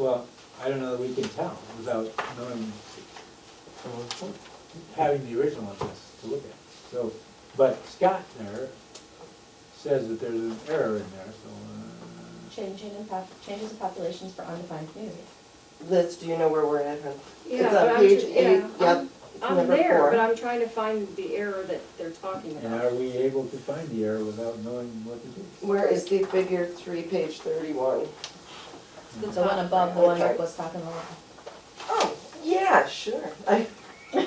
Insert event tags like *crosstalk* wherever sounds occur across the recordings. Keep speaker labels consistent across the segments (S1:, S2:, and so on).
S1: Well, I don't know that we can tell without knowing, having the original on this to look at. So, but Scott there says that there's an error in there, so.
S2: Changing in pop, changes in populations for undefined community.
S3: Liz, do you know where we're at? huh?
S4: Yeah,
S3: It's on
S4: but I'm
S3: page
S4: ju-
S3: eight,
S4: yeah,
S3: yep,
S4: I'm-
S3: it's
S4: I'm
S3: number
S4: there,
S3: four.
S4: but I'm trying to find the error that they're talking
S1: uh, And are
S4: about.
S1: we able to find the error without knowing what to do?
S3: Where is the figure three, page thirty-one?
S4: It's the
S2: The one
S4: top
S2: above the
S4: right.
S2: one that was talking about.
S3: Oh, yeah, sure. I-
S1: Yeah,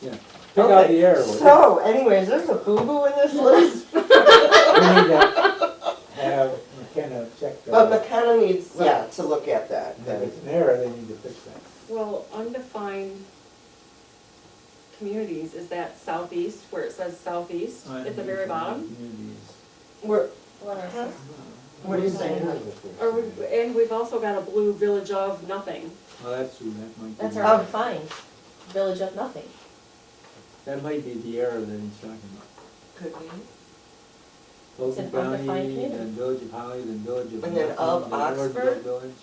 S1: pick out the
S3: okay.
S1: error. would you?
S3: So anyways, there's a boo-boo in this list, *laughs*
S1: We need to have McKenna check
S3: but
S1: that.
S3: McKenna needs, yeah, to look at that.
S1: And if it's an error, they need to fix that.
S4: Well, undefined communities, is that southeast, where it says southeast at the very bottom?
S1: Communities.
S3: We're,
S2: What else?
S3: Huh? What are you saying?
S4: Or, we- and we've also got a blue village of nothing.
S1: Well, that's true, that might be.
S2: That's
S3: our-
S2: our undefined, village of nothing.
S1: That might be the error that he's talking about.
S3: could we?
S2: It's
S1: Logan
S2: an
S1: County,
S2: undefined community.
S1: then Village of Holly, then Village of.
S3: And then of
S1: Northland, then Lordville
S3: Oxford?
S1: Village,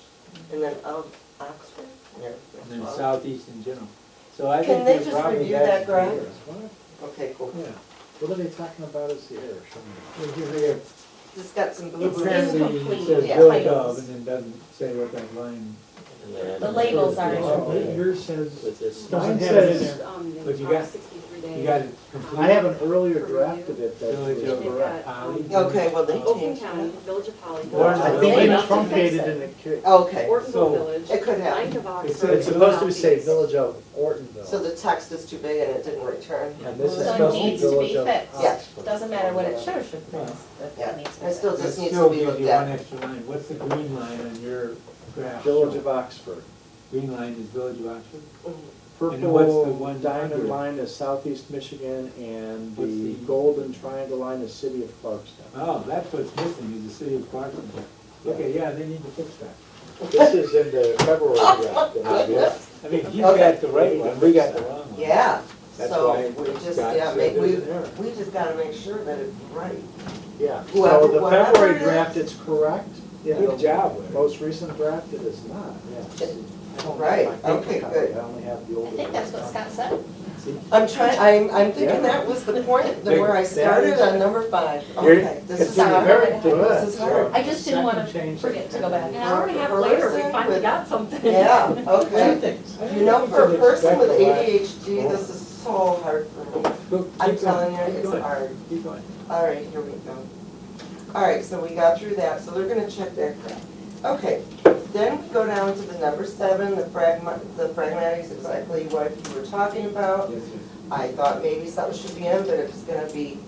S3: And then of Oxford? Yeah.
S1: and then
S3: well,
S1: southeast in general. So I think
S3: Can they
S1: there's
S3: just
S1: probably.
S3: review
S1: that's
S3: that
S1: the
S3: graph?
S1: error.
S3: Okay, cool.
S5: Yeah, what are they talking about is the error, show me.
S1: Well, you figure
S3: Just got some
S1: It
S3: boo-boos.
S1: says, the-
S2: Incomplete
S1: it says
S3: Yeah.
S1: village of,
S2: titles.
S1: and then doesn't say what that line,
S2: The labels are.
S5: Oh,
S2: incomplete.
S5: yeah, Yours says,
S6: With this,
S5: Doesn't
S4: Mine
S5: have
S4: says,
S5: it in there.
S4: um,
S1: But you
S4: top
S1: got-
S4: 63 day.
S1: you got it complete.
S5: I have an earlier draft of it that
S1: Village
S5: was
S1: of
S4: They've
S5: correct.
S4: got,
S1: Holly.
S4: um,
S3: Okay, well, they
S4: Oakland
S3: changed
S4: County,
S3: that.
S4: Village of Holly.
S1: Or is
S5: I
S1: it-
S4: Ortonville
S5: think
S1: They
S5: it was
S2: have to
S5: truncated
S2: fix it.
S5: in the, ca-
S3: Okay,
S1: So,
S4: Village.
S3: it could
S4: Ninth
S3: happen.
S4: of Oxford.
S5: it's it's supposed to say
S4: Southeast.
S5: Village of
S3: So
S5: Ortonville.
S3: the text is too big and it didn't return.
S5: And this is
S2: So it
S5: supposed to be
S2: needs to be
S5: Village of
S2: fixed.
S3: Yeah.
S5: Oxford.
S2: Doesn't matter what it shows, should be, but
S3: Yeah.
S2: that needs to
S3: I
S2: be.
S3: still
S2: fixed.
S3: just
S1: That
S3: needs
S1: still
S3: to be
S1: gives
S3: looked
S1: you One
S3: at.
S1: extra line, what's the green line on your graph?
S5: Village of Oxford.
S1: Green line is Village of Oxford? And what's the
S5: Purple
S1: one
S5: diamond
S1: under?
S5: line is Southeast Michigan, and
S1: What's
S5: the
S1: the-
S5: golden triangle line is City of
S1: *laughs*
S5: Clarkston.
S1: Oh, that's what's missing, is the city of Clarkson. Okay, yeah, they need to fix that.
S5: This is in the February draft. that I did.
S1: I mean, he's
S3: Okay.
S1: got the right one, we got the wrong one.
S3: Yeah,
S1: That's
S3: so
S1: why
S3: we just,
S1: God
S3: yeah,
S1: said
S3: make, we,
S1: there's an error.
S3: we just gotta make sure that it's right.
S5: *laughs* Yeah,
S3: Whoever-
S5: so the
S3: whatever it
S5: February
S3: is.
S5: draft, it's correct. Yeah,
S1: Good
S5: the
S1: job, Larry.
S5: Most recent draft, it is not, yes. I don't have
S3: Right,
S5: my paper
S3: okay,
S5: copy,
S3: good.
S5: I only have the
S2: I
S5: older.
S2: think that's what
S5: one.
S2: Scott said.
S3: I'm trying, I'm, I'm thinking
S5: Yeah.
S3: that was the point, the where I
S5: That
S3: started
S5: is-
S3: on number five.
S5: You're-
S3: Okay, this
S5: it's
S3: is
S2: been
S3: hard.
S5: very
S3: This is
S5: good.
S3: hard.
S2: I just didn't wanna
S5: Second change.
S2: forget to go
S4: And
S2: back.
S4: an hour and a half later, we finally got something.
S3: Yeah, okay.
S5: things.
S3: You know, for a person with
S1: eighty.
S3: ADHD, this is so hard for me. I'm telling you, it's hard.
S1: Keep going.
S3: All right, here we go. All right, so we got through that, so they're gonna check that crap. Okay, then we go down to the number seven, the pragma, the pragmatics, exactly what you were talking about.
S1: Yes, sir.
S3: I thought maybe something should be in, but if it's gonna be,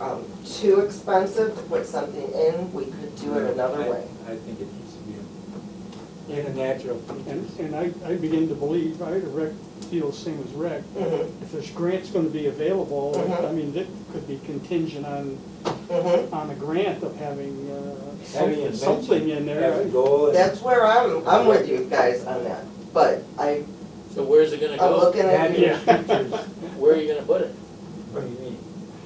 S3: um, too expensive to put something in, we could do it another
S1: I-
S3: way.
S1: I think it needs to be in- in a natural.
S7: And, and I, I begin to believe, I rec, feel the same as rec,
S3: Mm-hmm,
S7: if there's grants gonna be available,
S3: Mhm.
S7: I
S1: Uh-huh.
S7: mean, that could be contingent on,
S3: mm-hmm.
S7: on a grant of having, uh,
S1: Having
S7: something,
S1: invention,
S7: something in there.
S1: Have a goal. and-
S3: That's where I'm, I'm with you guys on that, but I,
S6: so where's it gonna
S3: I'm
S6: go?
S3: looking at
S1: That
S3: you.
S1: is
S7: Yeah.
S1: teachers.
S6: Where are you gonna put it?
S1: What do you *laughs* mean?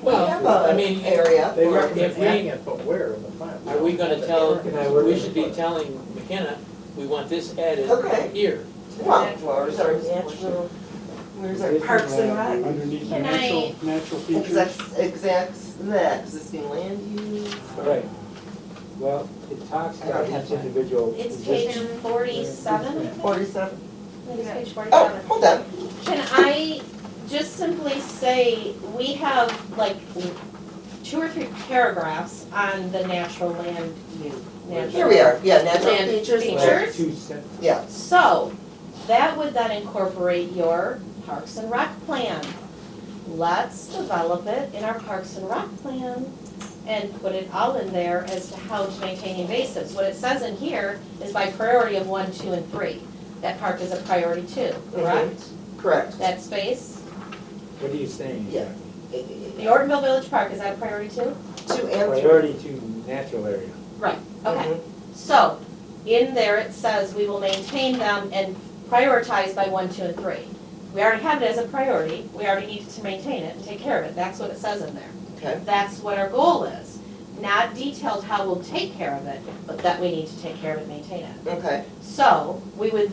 S3: We have a
S6: I mean,
S3: area.
S5: They
S6: Or
S5: recommend
S6: if we-
S5: adding it, but where in the file?
S6: Are we gonna tell,
S1: Can I work
S6: we
S1: in
S6: should
S1: the
S6: be
S1: budget?
S6: telling McKenna, we want this added
S3: Okay.
S6: here.
S3: Well, where's our natural, where's our parks and rec?
S7: Underneath the
S2: Can I-
S7: natural, natural features.
S3: Exact, exact, that existing land use.
S1: All right. Well, it talks
S3: I don't
S1: about
S3: have
S1: each
S3: time.
S1: individual.
S2: It's
S1: position.
S2: page forty-seven, I think.
S3: Forty-seven.
S2: I think it's page
S3: Oh,
S2: forty-seven.
S3: hold on.
S2: Can I just simply say, we have like two or three paragraphs on the natural land use. natural-
S3: Here we are. Yeah, natural
S2: Land
S3: features.
S2: feature.
S1: Well,
S2: teachers?
S1: Two sentences.
S3: Yeah.
S2: So, that would then incorporate your Parks and Rec plan. Let's develop it in our Parks and Rec plan and put it all in there as to how to maintain invasives. What it says in here is by priority of one, two, and three. That park is a priority two,
S3: Mm-hmm.
S2: correct?
S3: Correct.
S2: That space,
S1: What are you saying?
S3: Yeah.
S2: the
S3: Two
S2: Ortonville Village Park, is that a priority two?
S3: and three.
S1: Priority to natural area.
S2: Right, okay.
S3: Mhm.
S2: So, in there, it says we will maintain them and prioritize by one, two, and three. We already have it as a priority, we already need to maintain it and take care of it, that's what it says in there.
S3: Okay.
S2: That's what our goal is. not detailed how we'll take care of it, but that we need to take care of it, maintain it.
S3: Okay.
S2: So, we would